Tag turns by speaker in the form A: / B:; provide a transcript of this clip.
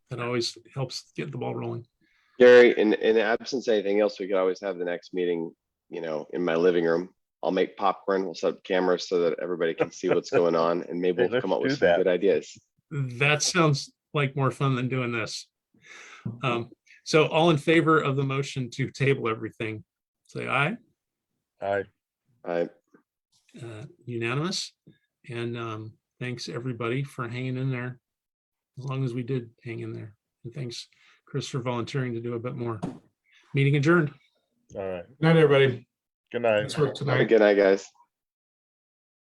A: That always helps get the ball rolling.
B: Gary, in, in the absence of anything else, we could always have the next meeting, you know, in my living room. I'll make popcorn, we'll set up cameras so that everybody can see what's going on and maybe
C: Hey,
B: we'll come
C: let's
B: up with
C: do
B: some
C: that.
B: good ideas.
A: That sounds like more fun than doing this. Um, so all in favor of the motion to table everything, say aye,
C: I,
B: I,
A: uh, unanimous. And, um, thanks everybody for hanging in there. As long as we did hang in there. And thanks, Chris, for volunteering to do a bit more. Meeting adjourned.
C: all right,
D: Night, everybody.
C: good night.
D: Nice work tonight.
B: good night, guys.